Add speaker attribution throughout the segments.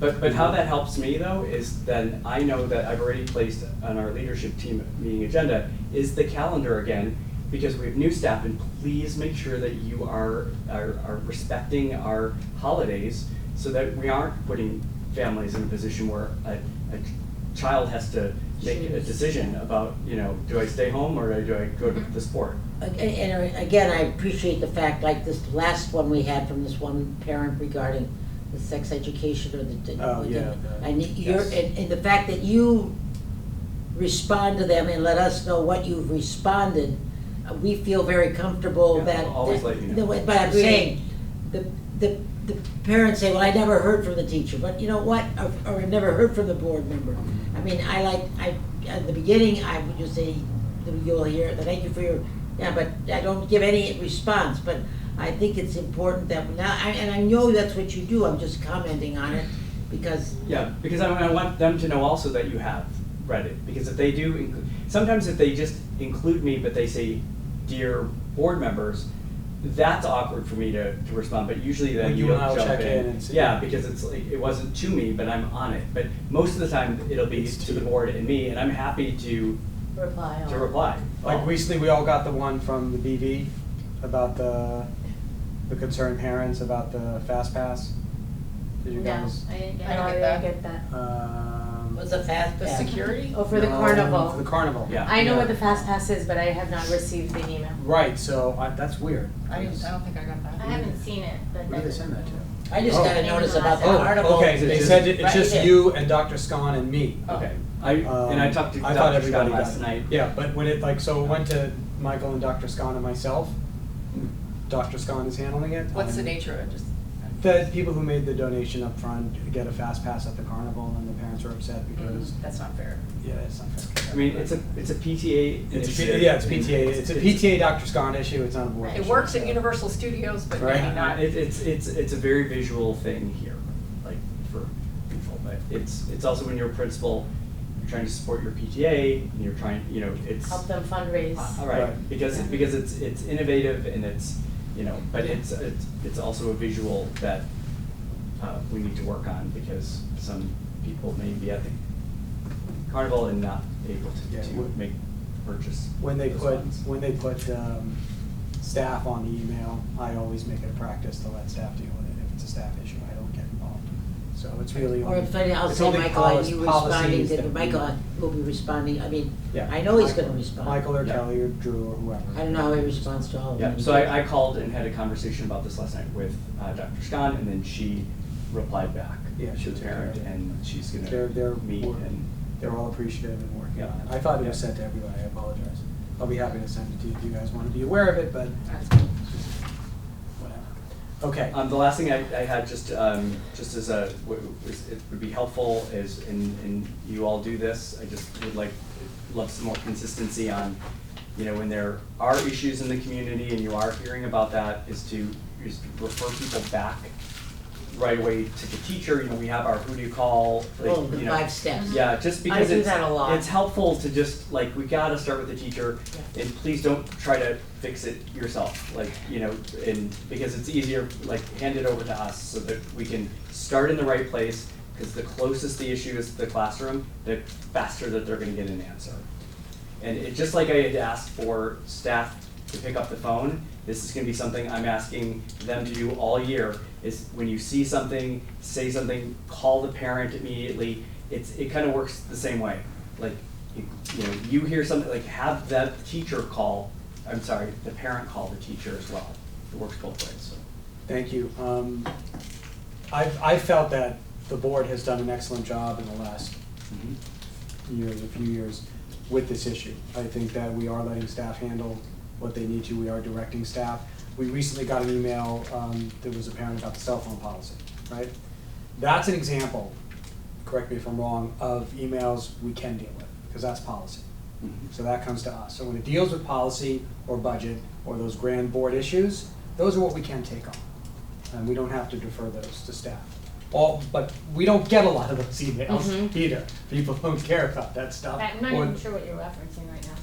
Speaker 1: But, but how that helps me though is then I know that I've already placed on our leadership team meeting agenda is the calendar again, because we have new staff and please make sure that you are, are, are respecting our holidays so that we aren't putting families in a position where a, a child has to make a
Speaker 2: Choose.
Speaker 1: decision about, you know, do I stay home or do I go to the sport?
Speaker 2: Ag- And again, I appreciate the fact, like this last one we had from this one parent regarding the sex education or the.
Speaker 1: Oh, yeah, the-
Speaker 2: And you're,
Speaker 1: yes.
Speaker 2: and, and the fact that you respond to them and let us know what you've responded, uh, we feel very comfortable
Speaker 1: Yeah,
Speaker 2: that.
Speaker 1: we'll always
Speaker 2: that-
Speaker 1: let you know.
Speaker 2: the way- But I'm
Speaker 3: Agreed.
Speaker 2: saying, the, the, the parents say, well, I never heard from the teacher, but you know what, or, or I never heard from the board member. I mean, I like, I, at the beginning, I would just say, you'll hear, thank you for your, yeah, but I don't give any response, but I think it's important that, now, I- and I know that's what you do, I'm just commenting on it, because,
Speaker 1: Yeah, because I, I want them to know also that you have read it, because if they do, inclu- sometimes if they just include me, but they say, dear board members, that's awkward for me to, to respond, but usually then
Speaker 4: Well, you
Speaker 1: you'll
Speaker 4: and I will
Speaker 1: jump
Speaker 4: check
Speaker 1: in.
Speaker 4: in and see.
Speaker 1: Yeah, because it's like, it wasn't to me, but I'm on it, but most of the time, it'll be
Speaker 4: It's
Speaker 1: to
Speaker 4: to
Speaker 1: the
Speaker 4: you.
Speaker 1: board and me, and I'm happy to,
Speaker 3: Reply
Speaker 2: Oh.
Speaker 3: all.
Speaker 1: to reply.
Speaker 4: Like recently, we all got the one from the BV about the, the concerned parents about the fast pass. Did you
Speaker 3: No,
Speaker 4: guys?
Speaker 3: I didn't get
Speaker 5: I
Speaker 3: that.
Speaker 5: don't get that.
Speaker 4: Um,
Speaker 2: was a fast
Speaker 5: The
Speaker 2: pass.
Speaker 5: security? Oh, for the
Speaker 4: no,
Speaker 5: carnival.
Speaker 4: For the carnival.
Speaker 1: Yeah.
Speaker 5: I know
Speaker 4: Yeah.
Speaker 5: what the fast pass is, but I have not received the email.
Speaker 4: Right, so I, that's weird.
Speaker 6: I didn't, I don't think I got
Speaker 3: I
Speaker 6: that.
Speaker 3: haven't seen it, but.
Speaker 4: Who did they
Speaker 3: that-
Speaker 4: send that to?
Speaker 2: I just got a
Speaker 3: Oh.
Speaker 2: notice about the
Speaker 3: Oh,
Speaker 2: article.
Speaker 4: Okay,
Speaker 1: Is it
Speaker 4: they
Speaker 1: just-
Speaker 4: said it-
Speaker 2: Right
Speaker 4: it's just
Speaker 2: there.
Speaker 4: you and Dr. Scon and me.
Speaker 1: Okay, I, and I
Speaker 4: Um,
Speaker 1: talked to
Speaker 4: I thought
Speaker 1: Dr. Scott
Speaker 4: everybody got
Speaker 1: last
Speaker 4: it.
Speaker 1: night.
Speaker 4: Yeah, but when it like, so it went to Michael and Dr. Scon and myself. Dr. Scon is handling it.
Speaker 6: What's the
Speaker 4: Um,
Speaker 6: nature of it, just?
Speaker 4: The people who made the donation up front get a fast pass at the carnival, and the parents are upset because
Speaker 6: That's not fair.
Speaker 4: yeah, it's not fair.
Speaker 1: I mean, it's a, it's a PTA
Speaker 4: It's a,
Speaker 1: initiative.
Speaker 4: P- yeah, it's
Speaker 1: and
Speaker 4: PTA. It's a PTA Dr. Scott issue. It's not a board.
Speaker 3: Right.
Speaker 6: It
Speaker 4: issue,
Speaker 6: works
Speaker 4: so.
Speaker 6: at Universal Studios, but
Speaker 4: Right.
Speaker 6: maybe not.
Speaker 1: It, it's, it's, it's a very visual thing here, like for people, but it's, it's also when you're a principal, you're trying to support your PTA and you're trying, you know, it's.
Speaker 3: Help them fundraise.
Speaker 1: All right,
Speaker 4: Right.
Speaker 1: because, because it's, it's innovative and it's, you know, but it's, it's, it's also a visual that, uh, we need to work on because some people may be at the carnival and not able
Speaker 4: Yeah,
Speaker 1: to, to
Speaker 4: wh-
Speaker 1: make purchase.
Speaker 4: When they
Speaker 1: those
Speaker 4: put
Speaker 1: funds.
Speaker 4: when they put um, staff on the email, I always make it a practice to let staff deal with it. If it's a staff issue, I don't get involved. So it's really
Speaker 2: Or
Speaker 4: only,
Speaker 2: if I, I'll
Speaker 4: it's
Speaker 2: say
Speaker 4: only
Speaker 2: Michael, and
Speaker 4: polic-
Speaker 2: you responding,
Speaker 4: policies
Speaker 2: to
Speaker 4: that we-
Speaker 2: Michael will be responding, I mean,
Speaker 4: Yeah.
Speaker 2: I know he's
Speaker 4: Michael-
Speaker 2: gonna respond.
Speaker 4: Michael or
Speaker 1: Yeah.
Speaker 4: Kelly or Drew or whoever.
Speaker 2: I don't know how he responds to all of them.
Speaker 1: Yeah, so I, I called and had a conversation about this last night with uh, Dr. Scott, and then she replied back.
Speaker 4: Yeah,
Speaker 1: She
Speaker 4: she
Speaker 1: was
Speaker 4: took care
Speaker 1: parent,
Speaker 4: of it.
Speaker 1: and she's
Speaker 4: They're- they're
Speaker 1: gonna meet
Speaker 4: more-
Speaker 1: and,
Speaker 4: They're all appreciative and working
Speaker 1: Yeah.
Speaker 4: on it. I thought it was
Speaker 1: Yeah.
Speaker 4: sent to everybody, I apologize. I'll be happy to send it to you if you guys want to be aware of it, but whatever. Okay,
Speaker 1: um, the last thing I, I had, just, um, just as a, w- is- it would be helpful is, and, and you all do this, I just would like, love some more consistency on, you know, when there are issues in the community and you are hearing about that, is to, is to refer people back right away to the teacher, you know, we have our who do you call, like,
Speaker 2: Oh, the
Speaker 1: you know.
Speaker 2: five steps.
Speaker 1: Yeah, just because
Speaker 3: do
Speaker 1: it's,
Speaker 3: that a lot.
Speaker 1: it's helpful to just, like, we gotta start with the teacher, and please don't try to fix it yourself, like, you know, and, because it's easier, like, hand it over to us, so that we can start in the right place, because the closest the issue is to the classroom, the faster that they're gonna get an answer. And it, just like I had asked for staff to pick up the phone, this is gonna be something I'm asking them to do all year, is when you see something, say something, call the parent immediately. It's, it kind of works the same way, like, you you know, you hear something, like, have that teacher call, I'm sorry, the parent call the teacher as well. It works both ways, so.
Speaker 4: thank you. Um, I, I felt that the board has done an excellent job in the last
Speaker 1: mhm.
Speaker 4: years, a few years, with this issue. I think that we are letting staff handle what they need to, we are directing staff. We recently got an email, um, that was a parent about the cell phone policy, right? That's an example, correct me if I'm wrong, of emails we can deal with, because that's policy.
Speaker 1: Mhm.
Speaker 4: So that comes to us. So when it deals with policy or budget or those grand board issues, those are what we can take on. And we don't have to defer those to staff. All, but we don't get a lot of those emails
Speaker 3: Mhm.
Speaker 4: either. People don't care about that stuff.
Speaker 3: I'm not
Speaker 4: Or-
Speaker 3: even sure what you're referencing right now.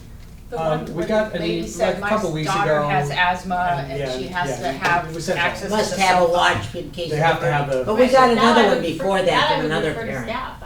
Speaker 6: The
Speaker 4: Um,
Speaker 6: one
Speaker 4: we
Speaker 6: where
Speaker 4: got
Speaker 6: the
Speaker 4: an e-
Speaker 6: lady
Speaker 4: like
Speaker 6: said,
Speaker 4: a
Speaker 6: my
Speaker 4: couple weeks
Speaker 6: daughter
Speaker 4: ago,
Speaker 6: has asthma
Speaker 4: and- yeah,
Speaker 6: and she has
Speaker 4: yeah,
Speaker 6: to have
Speaker 4: we said that.
Speaker 6: access to the
Speaker 2: Must have a
Speaker 6: cell phone."
Speaker 2: watch in case.
Speaker 4: They have to
Speaker 2: they're
Speaker 4: have
Speaker 2: burning.
Speaker 4: the-
Speaker 5: Oh,
Speaker 2: But we got
Speaker 3: Right, so now I
Speaker 2: another one
Speaker 3: would refer-
Speaker 2: before that
Speaker 3: now I
Speaker 2: from
Speaker 3: would
Speaker 2: another
Speaker 3: refer to
Speaker 2: parent.
Speaker 3: staff.